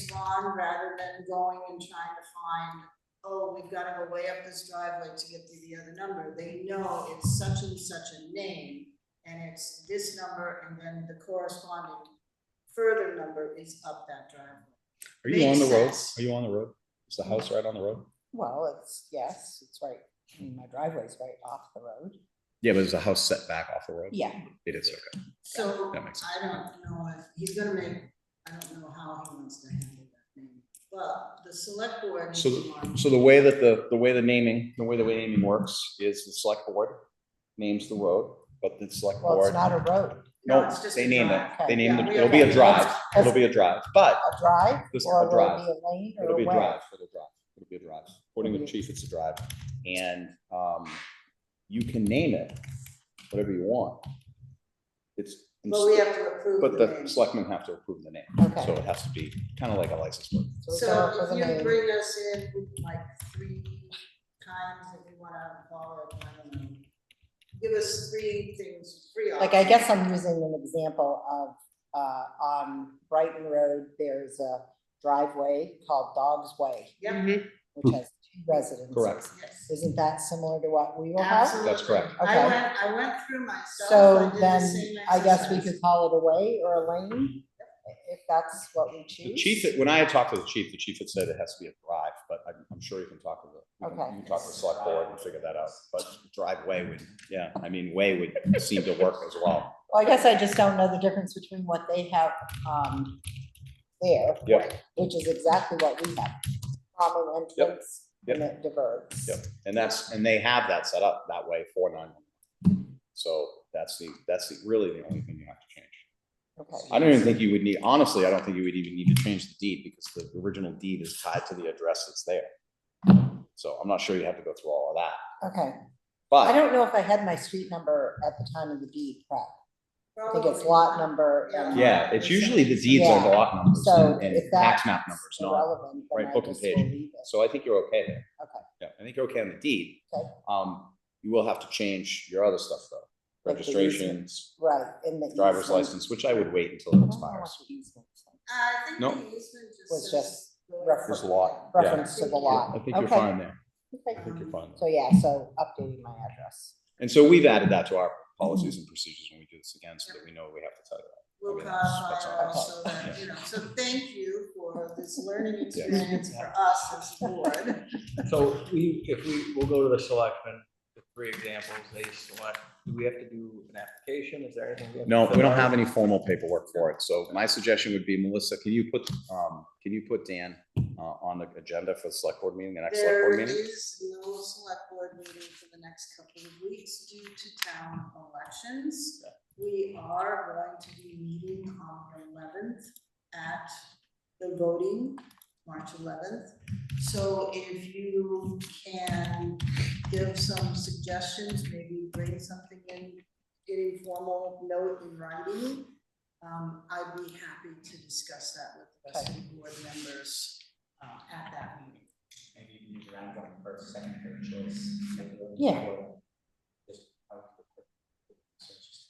respond rather than going and trying to find, oh, we've gotta go way up this driveway to get to the other number. They know it's such and such a name, and it's this number, and then the corresponding further number is up that driveway. Are you on the Makes road? sense. Are you on the road? Is the house right on the road? Well, it's, yes, it's right, I mean, my driveway's right off the road. Yeah, but is the house set back off the road? Yeah, It is, okay. So That makes I don't know if, he's gonna make, I don't know how he wants to handle that name, but the select board. is So- the one- So the way that the, the way the naming, the way the way naming works is the select board names the road, but the select well, it's board. not a road, No, No, it's just they a name it. drive. They name Yeah, it. we It'll be a already- drive. It'll be a drive, but a drive This is a or will it drive. be a lane or it'll a be a way? drive. It'll drive. It'll be a drive. According to the chief, it's a drive. And, um, you can name it whatever you want. It's. But we have to approve But the the name. selectmen have to approve the name, Okay. so it has to be kind of like a license plate. we So go for the if you name. bring us in like three times if you wanna follow it, I don't know. Give us three things, three. Like, I guess options. I'm using an example of, uh, on Brighton Road, there's a driveway called Dog's Way, Yep, which has two residences. Correct. yes. Isn't that similar to what we will have? Absolutely. That's correct. I Okay. went, I went through myself, So I did the then, same I guess we exercise. could call it a way or a lane, if that's what we choose. The chief, when I had talked to the chief, the chief had said it has to be a drive, but I'm, I'm sure you can talk to the, you Okay. can- you can talk to the select board and figure that out. But driveway would, yeah, I mean, way would seem to work as well. Well, I guess I just don't know the difference between what they have, um, there. Yep. Which is exactly what we have, common Yep. entrance and it diverts. Yep. And that's, and they have that set up that way for nine. So that's the, that's the, really the only thing you have to change. Okay, I don't even think you would need, honestly, I don't think you would even need to change the deed because the original deed is tied to the address that's there. So I'm not sure you have to go through all of that, okay. I but don't know if I had my street number at the time of the deed, prep. I think it's Probably lot not. number. and- yeah, it's usually the deeds are the lot numbers So and- if and that's tax map numbers, not. irrelevant, right, then I book and just will page. leave it. So I think you're okay there. Okay. Yeah, I think you're okay on the deed. Okay. Um, you will have to change your other stuff though, Like the easement. registrations, Right, in the. driver's easement. license, which I would wait I until don't it know what expires. the easement is. Uh, I think No. the easement just. says Was just go reference. There's a lot, yeah. Reference to the lot. I think you're Okay. fine there. I Okay. think you're fine. So yeah, so updating my address. And so we've added that to our policies and procedures when we do this again, so that we know what we have to tell you. We'll I mean, that's- clarify that's it all. all so that, you know, so thank you for this learning Yeah. experience for us as a board. So we, if we, we'll go to the selectmen, the three examples they select, do we have to do an application? Is there anything? have to No, we fill don't out? have any formal paperwork for it, so my suggestion would be, Melissa, can you put, um, can you put Dan, uh, on the agenda for the select board meeting, the next select There board meeting? is no select board meeting for the next couple of weeks due to town elections. We are going to be meeting on the eleventh at the voting, March eleventh. So if you can give some suggestions, maybe bring something in, in formal note in writing, um, I'd be happy to discuss that with the rest of the board members, uh, at that meeting. Maybe you can use your own one first, second, third choice. Yeah. Just, uh, so it's just-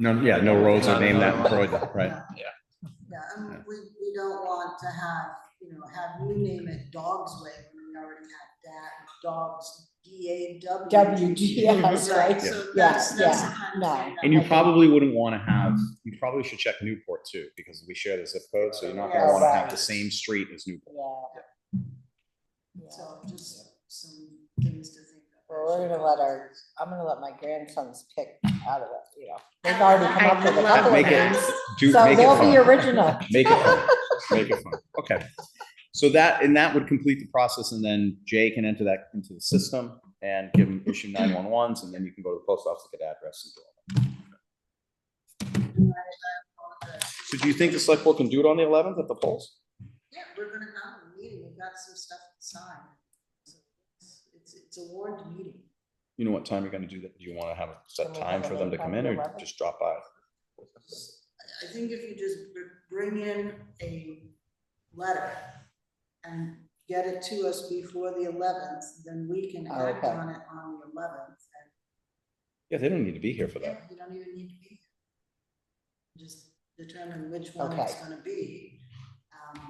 No, yeah, no roads are named that, in Croydon, right? Yeah, Yeah. and we, we don't want to have, you know, have you name it Dog's Way, when we already have that, Dogs, D A W. W G, yeah, that's right. Yeah. So that's, Yeah, that's the yeah, kind no. of thing. that And you I- probably wouldn't wanna have, you probably should check Newport too, because we share the zip code, so you're not gonna Yeah, wanna have right. the same street as Newport. Yeah. Yeah. So just some things to think about. Well, we're gonna let our- I'm gonna let my grandsons pick out of it, you know, they've already come up with a couple of Make it- names. Do, So make it they'll be fun. original. Make it fun, make it fun, okay. So that, and that would complete the process, and then Jay can enter that into the system and give him issue nine one ones, and then you can go to the post office, get address and do all that. So do you think the select board can do it on the eleventh at the polls? Yeah, we're gonna have a meeting, we've got some stuff to sign. So It's, it's- it's a warned meeting. You know what time you're gonna do that? Do you wanna have a set Can we time have for it them to on come in or 11th? just drop by? I- I think if you just br- bring in a letter and get it to us before the eleventh, then we can Oh, act okay. on it on the eleventh. Yeah, they don't need to be here for And that. you don't even need to be. Um, here. Just determine which one it's gonna be.